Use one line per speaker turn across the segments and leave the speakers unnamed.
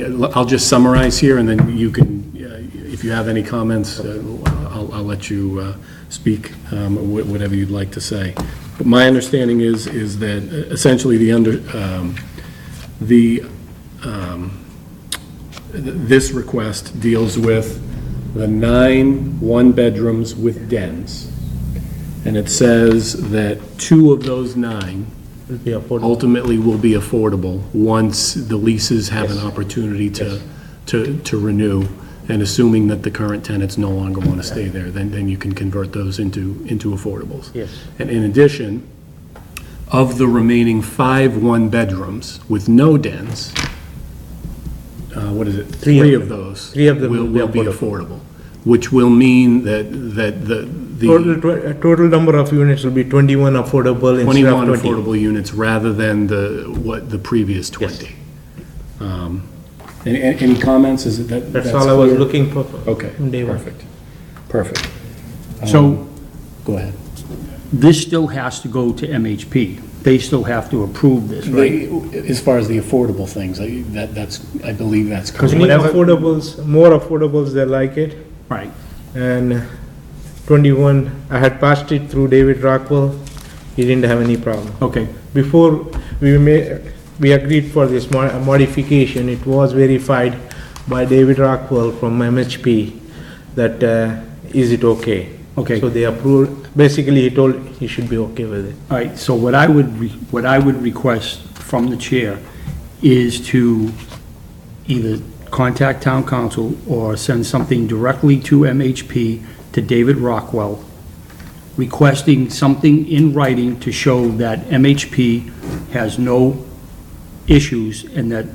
Uh, I'll just summarize here, and then you can, uh, if you have any comments, uh, I'll, I'll let you uh, speak, um, wh- whatever you'd like to say. But my understanding is, is that uh, essentially the under, um, the, um, th- this request deals with the nine one-bedrooms with dens. And it says that two of those nine
Will be affordable.
ultimately will be affordable once the leases have an opportunity to, to, to renew. And assuming that the current tenants no longer want to stay there, then, then you can convert those into, into affordables.
Yes.
And in addition, of the remaining five one-bedrooms with no dens, uh, what is it?
Three of
of those.
Three of them will be
Will be affordable, which will mean that, that the, the.
Total, tw- uh, total number of units will be twenty-one affordable instead
21
of twenty.
affordable units rather than the, what, the previous 20. Um, Any, any any comments? Is it that?
That's all I was
clear?
looking for.
Okay.
from day one.
Perfect. Perfect.
So
Go ahead.
this still has to go to MHP. They still have to approve this, right?
They- As far as the affordable things, I- that, that's, I believe that's
You
correct.
need
Whatever-
affordables, more affordables, they like it.
Right.
And uh, twenty-one, I had passed it through David Rockwell. He didn't have any problem.
Okay,
Before we ma, we agreed for this mo- uh, modification, it was verified by David Rockwell from MHP that, uh, is it okay?
Okay.
So they approved, basically he told he should be okay with it.
all right, so what I would, re- what I would request from the chair is to either contact town council or send something directly to MHP, to David Rockwell, requesting something in writing to show that MHP has no issues and that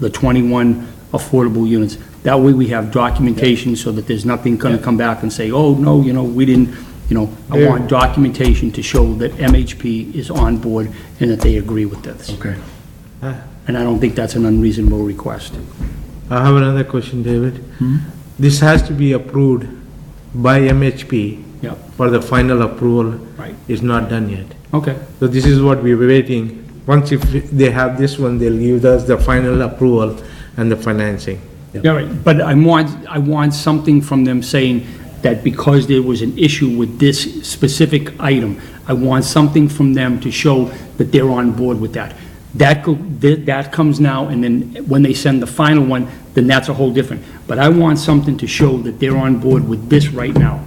the 21 affordable units. That way, we have documentation so that there's nothing going to come back and say, oh, no, you know, we didn't, you know, I
Yeah.
want documentation to show that MHP is on board and that they agree with this.
Okay.
Ah.
And I don't think that's an unreasonable request.
I have another question, David.
Hmm?
This has to be approved by MHP
Yeah,
for the final approval.
Right.
Is not done yet.
okay,
So this is what we were waiting. Once if they have this one, they'll give us the final approval and the financing.
all right, but I want, I want something from them saying that because there was an issue with this specific item, I want something from them to show that they're on board with that. That, go- that that comes now, and then when they send the final one, then that's a whole different. But I want something to show that they're on board with this right now.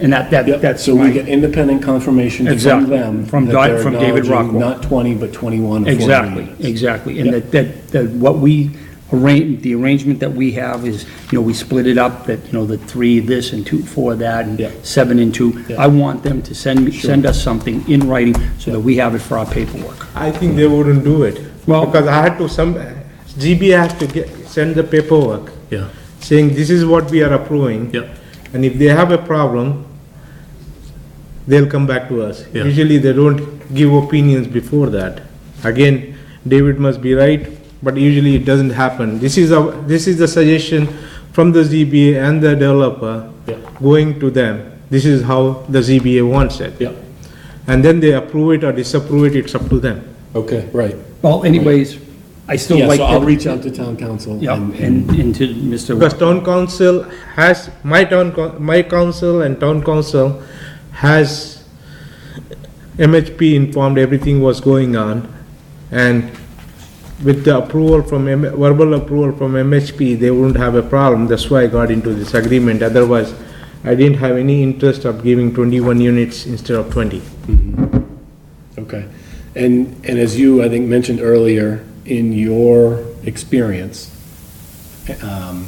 And that, that, that's
So we
my,
get independent confirmation from
Exactly.
them.
From
that
Di-
they're
from David
acknowledging
Rockwell.
Not 20, but 21 affordable
Exactly,
units.
exactly, and that, that, that what we arrange, the arrangement that we have is, you know, we split it up, that, you know, the three this and two, four that,
Yeah.
and seven and two.
Yeah.
I want them to send, me send us something in writing so that we have it for our paperwork.
I think they wouldn't do it.
Well-
Because I had to some, GB has to get, send the paperwork
Yeah,
saying this is what we are approving.
Yep.
And if they have a problem, they'll come back to us.
Yeah.
Usually they don't give opinions before that. Again, David must be right, but usually it doesn't happen. This is a, this is the suggestion from the ZBA and the developer
Yeah.
going to them. This is how the ZBA wants it.
yeah,
And then they approve it or disapprove it, it's up to them.
okay, right.
Well, anyways, I still
Yeah,
like.
so I'll
that-
reach out to town council.
Yeah,
and-
and, and to Mr.
Because town council has, my town, coun- my council and town council has MHP informed everything was going on. And with the approval from, M- verbal approval from MHP, they wouldn't have a problem. That's why I got into this agreement. Otherwise, I didn't have any interest of giving twenty-one units instead of twenty.
Okay. And, and as you, I think, mentioned earlier, in your experience, um,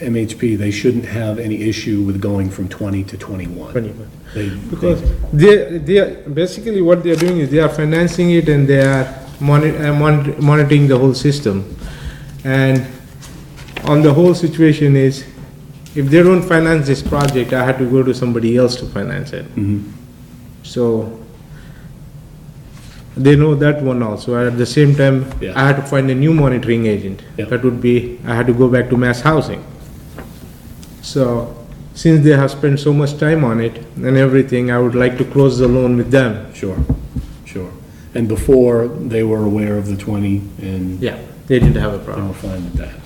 MHP, they shouldn't have any issue with going from 20 to 21.
21.
They-
Because they, they, are- basically what they are doing is they are financing it and they are moni- uh, mon- monitoring the whole system. And on the whole situation is, if they don't finance this project, I had to go to somebody else to finance it. So, they know that one also, at the same time,
Yeah.
I had to find a new monitoring agent.
Yeah.
That would be, I had to go back to mass housing. So, since they have spent so much time on it and everything, I would like to close the loan with them.
Sure, sure. And before, they were aware of the 20 and.
Yeah.
they didn't have a
They
problem.
were fine with that.